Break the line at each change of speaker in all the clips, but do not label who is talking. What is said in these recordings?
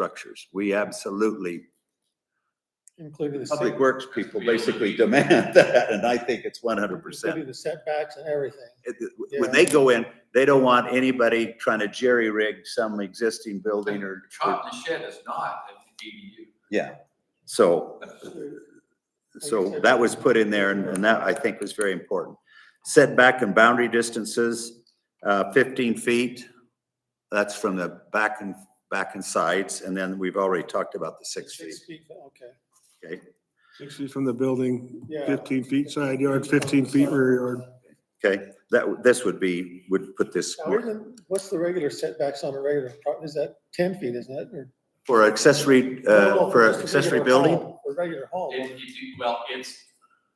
structures. We absolutely,
including the.
Public
set-
Works people basically demand that, and I think it's one hundred percent.
Including the setbacks and everything.
When they go in, they don't want anybody trying to jerry-rig some existing building or,
Chop the shed is not an ADU.
yeah. So So that was put in there and, and that I think was very important. Setback and boundary distances, uh, fifteen feet. That's from the back and, back and sides, and then we've already talked about the six feet,
Six feet, okay,
okay?
Six feet from the building,
Yeah.
fifteen feet side yard, fifteen feet rear yard.
Okay, that, this would be, would put this
now, isn't- what's the regular setbacks on a regular, pro- is that ten feet, isn't it? or-
for accessory,
No,
uh,
no,
for
just a
accessory
regular
building.
home, For regular
It,
home,
it, well, it's,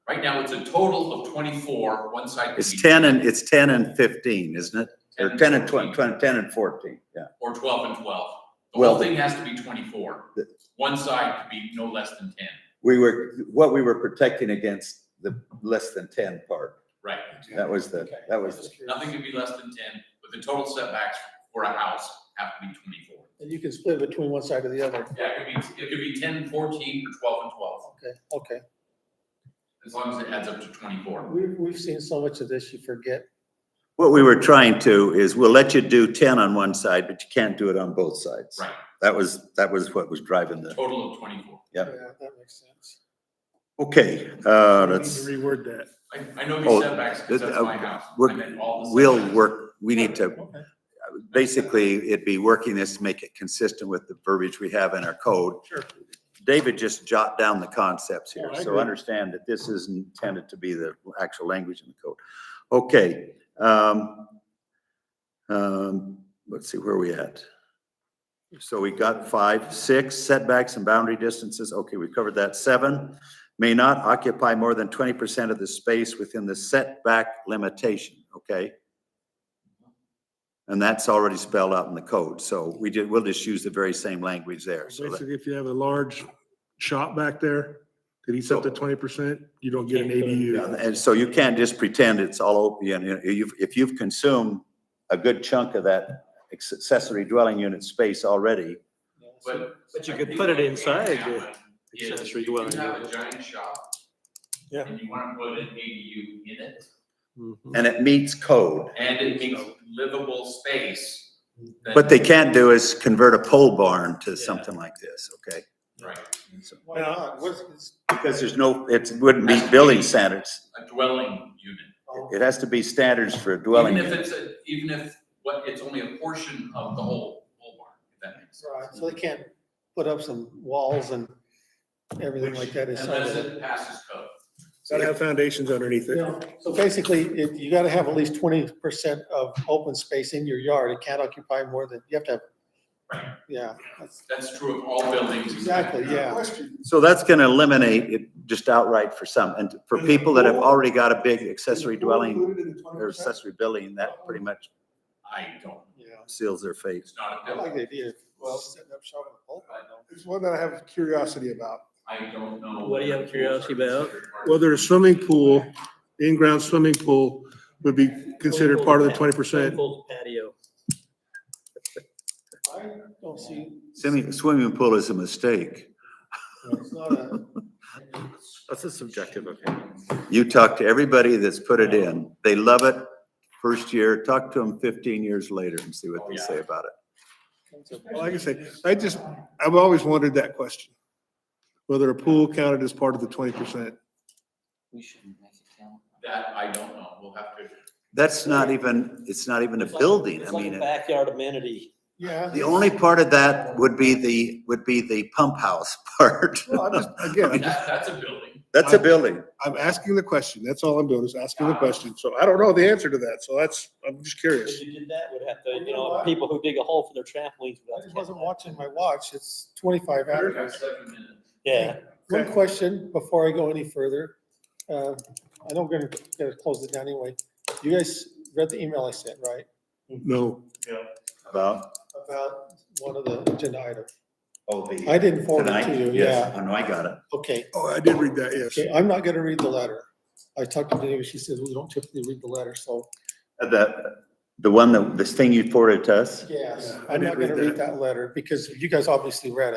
right now, it's a total of twenty-four, one side. could
It's
be
ten and, it's ten and fifteen, isn't it? Or ten and twenty,
14,
twenty, ten and fourteen, yeah.
Or twelve and twelve. The
Well,
whole thing has to be twenty-four.
The-
One side could be no less than ten,
We were, what we were protecting against the less than ten part,
right?
that was the,
Okay.
that was the
Nothing could be less than ten, but the total setbacks for a house have to be twenty-four.
and you can split between one side or the other,
Yeah, it could be, it could be ten, fourteen, or twelve and twelve,
okay, okay.
as long as it adds up to twenty-four.
We've, we've seen so much of this, you forget.
What we were trying to is we'll let you do ten on one side, but you can't do it on both sides.
Right.
That was, that was what was driving the,
Total of twenty-four.
Yeah.
That makes sense.
okay, uh,
We need to
that's,
Reword that.
I, I know
Oh,
these setbacks, because
that-
that's my house. I
we're-
meant all the
we'll
setbacks.
work, we need to,
Okay.
basically, it'd be working this to make it consistent with the verbiage we have in our code.
Sure.
David just jot down the concepts here,
Yeah, I
so
agree.
understand that this is intended to be the actual language in the code. Okay, um, um, let's see, where are we at? So we got five, six setbacks and boundary distances. Okay, we covered that. Seven, may not occupy more than twenty percent of the space within the setback limitation, okay? And that's already spelled out in the code, so we did, we'll just use the very same language there. So that-
Basically, if you have a large shop back there that eats up to twenty percent, you don't get an ADU.
And so you can't just pretend it's all open, you know, you've, if you've consumed a good chunk of that accessory dwelling unit space already,
Yeah, so-
But.
But you
I
could
think
put it
what can
inside
happen
the
is
accessory
if you
dwelling
have
unit.
a giant shop.
Yeah.
And you wanna put an ADU in it, Hmm.
Mhm.
and it meets code.
and it makes livable space. then-
What they can't do is convert a pole barn to something like this, okay?
Right,
Why not? What's- it's-
Because there's no, it wouldn't meet building standards.
a dwelling unit.
oh,
It has to be standards for a dwelling.
Even if
unit.
it's a, even if, what, it's only a portion of the whole, whole barn, if that makes sense.
Right, so they can't put up some walls and everything like that inside
Unless
of it.
it passes code.
Gotta have foundations underneath it.
Yeah, So basically, if you gotta have at least twenty percent of open space in your yard, it can't occupy more than, you have to have.
Right.
Yeah, that's-
That's true of all buildings.
exactly, yeah.
So that's gonna eliminate it just outright for some, and for people that have already got a big accessory dwelling or accessory building, that pretty much
I don't,
Yeah,
seals their fate.
it's not a
I like
building.
the idea
Well-
of setting up shop in a pole barn, though.
It's one that I have curiosity about.
I don't know.
What do you have curiosity about?
Whether a swimming pool, in-ground swimming pool would be considered part of the twenty percent.
Full Patio.
I don't see,
Swimming, swimming pool is a mistake.
it's not a,
That's a subjective opinion.
You talk to everybody that's put it in, they love it first year, talk to them fifteen years later and see what they say about it.
Like I say, I just, I've always wondered that question. Whether a pool counted as part of the twenty percent.
We shouldn't make it count.
That I don't know, we'll have to.
That's not even, it's not even a
It's like-
building, I
it's like a
mean, it-
Backyard amenity.
yeah.
the only part of that would be the, would be the pump house part.
Well, I'm just, again, I'm
That, that's a building.
That's a building.
I'm asking the question. That's all I'm doing is asking the question. So I don't know the answer to that. So that's, I'm just
If
curious.
you did that, would have to, you know, people who dig a hole for their trampolines.
I
would have to
just
count
wasn't
that.
watching my watch, it's twenty-five
We
after.
have seven minutes.
Yeah,
One question before I go any further. Uh, I know we're gonna, gonna close it down anyway. You guys read the email I sent, right?
No.
About,
About one of the agenda items.
oh, the.
I didn't forward it to
Tonight?
you,
Yes, Oh,
yeah.
I know, I got it.
Okay,
Oh, I did read that, yes.
okay, I'm not gonna read the letter. I talked to Debbie, she said, we don't typically read the letter, so
The, The one that, this thing you forwarded to us?
Yes,
I
I'm
didn't
not gonna
read
read that letter because you guys obviously read it.